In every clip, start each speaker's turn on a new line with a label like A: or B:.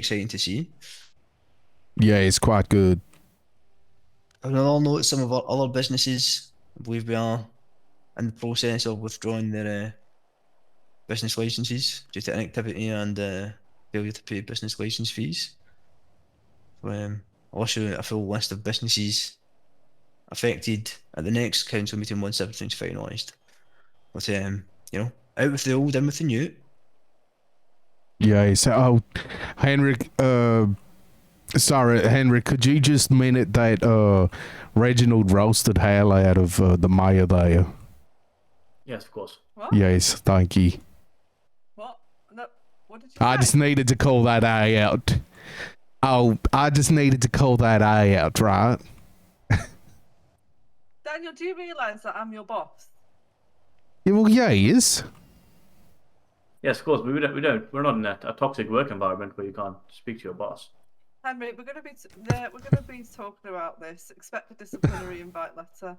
A: exciting to see.
B: Yeah, it's quite good.
A: On another note, some of our other businesses, I believe we are in the process of withdrawing their uh, business licences due to inactivity and uh, failure to pay business licence fees. So, um, I'll issue a full list of businesses affected at the next council meeting once everything's finalised. But um, you know, out with the old, in with the new.
B: Yeah, so oh, Henrik, uh, sorry, Henrik, could you just minute that uh, Reginald roasted hell out of uh, the mayor there?
C: Yes, of course.
D: What?
B: Yes, thank you.
D: What? No, what did you
B: I
D: say?
B: just needed to call that eye out. Oh, I just needed to call that eye out, right?
D: Daniel, do you realise that I'm your boss?
B: Yeah, well, yeah, he is.
C: Yes, of course. But we don't. We don't. We're not in a, a toxic work environment where you can't speak to your boss.
D: Henry, we're going to be t- there, we're going to be talking about this. Expect a disciplinary invite letter.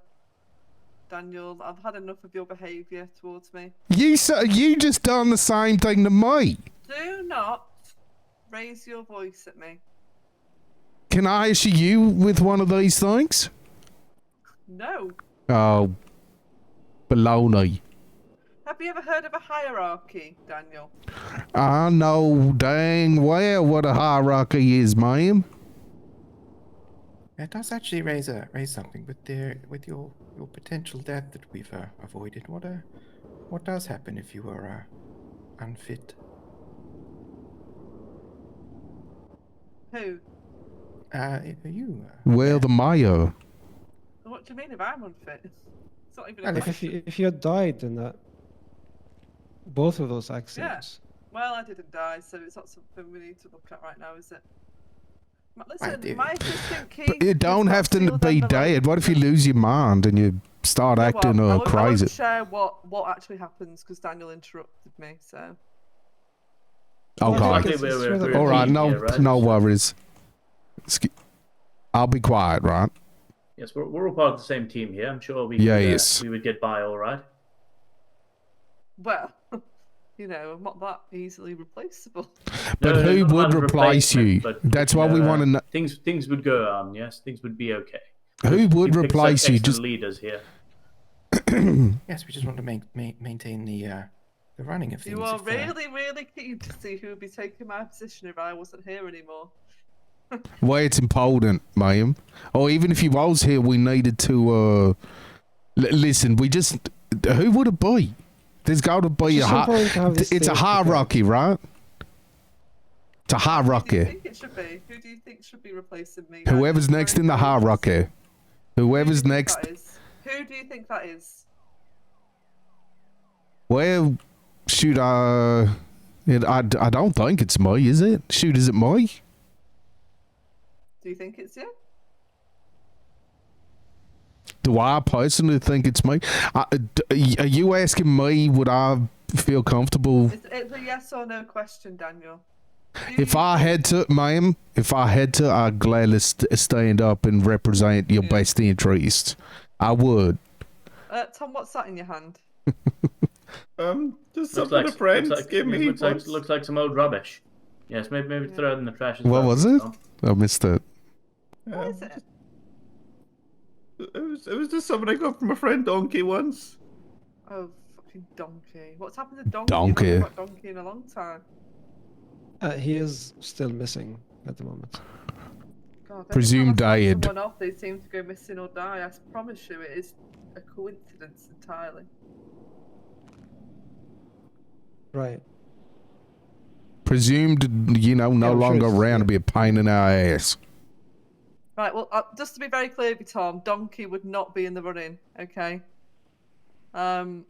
D: Daniel, I've had enough of your behaviour towards me.
B: You so, you just done the same thing to me.
D: Do not raise your voice at me.
B: Can I issue you with one of these things?
D: No.
B: Oh, baloney.
D: Have you ever heard of a hierarchy, Daniel?
B: I know dang well what a hierarchy is, ma'am.
E: That does actually raise a raise something with the with your your potential death that we've uh, avoided. What uh, what does happen if you are uh, unfit?
D: Who?
E: Uh, i- you. Uh,
B: Well, the mayor.
D: What do you mean if I'm unfit? It's not even a
E: Well,
D: question.
F: If you, if you had died in that, both of those accidents.
D: Well, I didn't die, so it's not something we need to look at right now, is it? Ma- Listen,
E: did.
D: my assistant Keith.
B: But you don't have to be dead. What if you lose your mind and you start acting
D: I
B: uh,
D: won't, I
B: crazy?
D: won't share what what actually happens because Daniel interrupted me. So
B: Oh
F: I
B: God!
F: think
C: Okay, we're-
F: it's
C: we're-
F: rather
C: we're
B: All right,
C: leading
B: no,
C: here, right?
B: no
C: So-
B: worries. Excu- I'll be quiet, right?
C: Yes, we're, we're all part of the same team here. I'm sure we.
B: Yeah,
C: could, uh,
B: yes.
C: we would get by all right.
D: well, you know, I'm not that easily replaceable.
B: But
C: No, no,
B: who
C: not
B: would
C: about
B: replace you?
C: replacement, but,
B: That's what we
C: know,
B: want to know.
C: Things things would go on. Yes, things would be okay.
B: Who would
C: We've picked some
B: replace you?
C: excellent
B: Just
C: leaders here.
E: yes, we just want to main, main, maintain the uh, the running of things.
D: You are
E: if, uh,
D: really, really keen to see who would be taking my position if I wasn't here anymore.
B: Well, it's important, ma'am. Or even if you was here, we needed to. uh l- Listen, we just. Who would it be? There's got to be
F: It's
B: a.
F: just
B: Hi-
F: important to have this
B: it's a
F: debate.
B: hierarchy, right? It's a
D: Who do you
B: hierarchy.
D: think it should be? Who do you think should be replacing me? Daniel?
B: Whoever's next in the
D: Who do you
B: hierarchy. Whoever's
D: think that
B: next.
D: is? Who do you think that is?
B: Well, shoot, uh. It, I, I don't think it's me, is it? Shoot, is it me?
D: Do you think it's you?
B: Do I personally think it's me? I, d- are you asking me would I feel comfortable
D: It's, it's a yes or no question, Daniel. Do
B: If
D: you-
B: I had to, ma'am, if I had to, I'd gladly st- stand up and represent your best interests. I would.
D: uh, Tom, what's that in your hand?
G: Um, just
C: Looks
G: something
C: like,
G: the friends
C: looks like,
G: give me.
C: Looks like,
G: once.
C: looks like some old rubbish. Yes, maybe maybe throw it in the trash. As
B: What
C: well,
B: was it?
C: Tom.
B: I missed it.
D: What
G: Um,
D: is it?
G: it, was, it was just something I got from a friend donkey once.
D: Oh, fucking donkey! What's happened to donkey?
B: Donkey.
D: We've not got donkey in a long time.
F: Uh, he is still missing at the moment.
D: God, every time
B: Presumed
D: I sign
B: died.
D: Someone off, they seem to go missing or die. I promise you, it is a coincidence entirely.
F: Right.
B: Presumed, you know, no
F: Yeah, I'm sure
B: longer
F: it's-
B: around to be a pain in our ass.
D: Right. Well, uh, just to be very clear, with you, Tom, donkey would not be in the running. Okay. Um,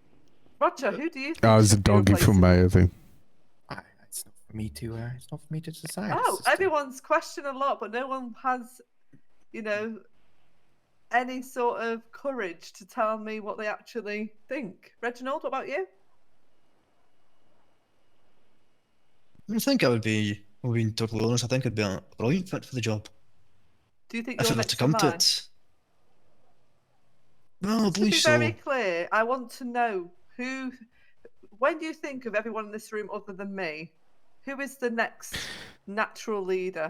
D: Roger, who do you? Think
B: Oh, it's a
D: should be
B: donkey for
D: replacing
B: me, I think.
E: I, it's not for me to. Uh, it's not for me to decide.
D: Oh,
E: it's just, uh,
D: everyone's questioned a lot, but no one has, you know, any sort of courage to tell me what they actually think. Reginald, what about you?
A: I think I would be, well, being totally honest, I think I'd be a brilliant fit for the job.
D: Do you think
A: if it
D: you're
A: were
D: next
A: to come to
D: line?
A: it. Well, I
D: To be
A: believe so.
D: very clear, I want to know who. When you think of everyone in this room other than me, who is the next natural leader.